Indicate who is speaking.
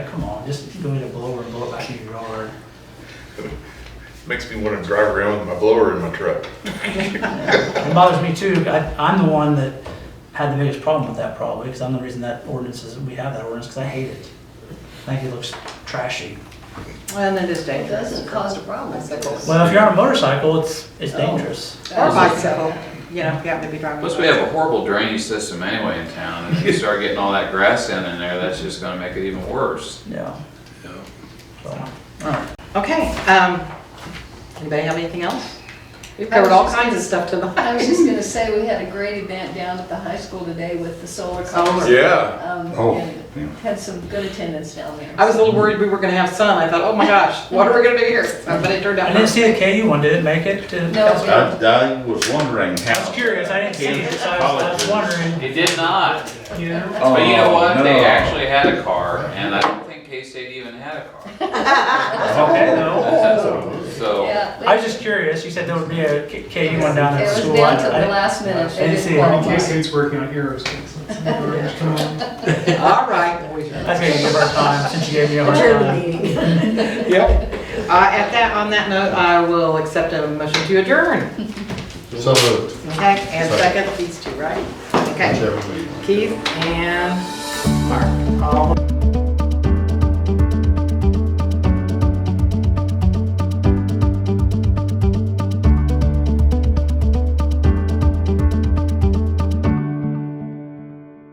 Speaker 1: go get a blower and blow it back in your yard.
Speaker 2: Makes me want to drive around with my blower in my truck.
Speaker 1: It bothers me too. I, I'm the one that had the biggest problem with that probably, because I'm the reason that ordinance is, we have that ordinance, because I hate it. I think it looks trashy.
Speaker 3: Well, and it is
Speaker 4: It
Speaker 3: dangerous.
Speaker 4: doesn't cause a problem, it's like. a-
Speaker 1: Well, if you're on a motorcycle, it's, it's dangerous.
Speaker 3: Or bicycle, you know, if you happen to be driving.
Speaker 5: Plus, we have a horrible drainage system anyway in town, and if you start getting all that grass down in there, that's just gonna make it even worse.
Speaker 1: Yeah.
Speaker 2: Yeah.
Speaker 1: So, all right.
Speaker 3: Okay, um, anybody have anything else? We've covered all kinds of stuff
Speaker 4: I was
Speaker 3: tonight.
Speaker 4: just gonna say, we had a great event down at the high school today with the solar
Speaker 3: Solar.
Speaker 4: concert.
Speaker 2: Yeah.
Speaker 4: Um,
Speaker 6: Oh,
Speaker 4: and had some good attendance down there.
Speaker 3: I was a little worried we were gonna have sun. I thought, oh my gosh, what are we gonna do here? Uh, But it turned
Speaker 1: I
Speaker 3: out.
Speaker 1: didn't see the KU one, did it make it to?
Speaker 4: No, it didn't.
Speaker 6: I, I was wondering how.
Speaker 1: I was curious, I didn't see it, so I was- I was wondering,
Speaker 5: It did not,
Speaker 1: you know?
Speaker 5: but you know what, they
Speaker 6: Oh, no.
Speaker 5: actually had a car, and I don't think K-State even had a car,
Speaker 6: Okay,
Speaker 4: Oh.
Speaker 5: so.
Speaker 4: Yeah,
Speaker 1: I was just curious, you said there would be a K- KU one down at the
Speaker 4: It
Speaker 1: school.
Speaker 4: was down
Speaker 1: I-
Speaker 4: to
Speaker 1: I-
Speaker 4: the last minute. They
Speaker 1: I didn't see it.
Speaker 4: qualify.
Speaker 1: Okay, so
Speaker 7: State's working on aerospace. Come on.
Speaker 3: All right. we-
Speaker 1: I think I can give her time, since you gave me a hard
Speaker 4: Adjourn the
Speaker 1: time.
Speaker 4: meeting.
Speaker 3: Uh, at that, on that note, I will accept a motion to adjourn.
Speaker 6: So moved.
Speaker 3: Okay, and second, these two, right? Okay,
Speaker 6: Whichever we-
Speaker 3: Keith and Mark, all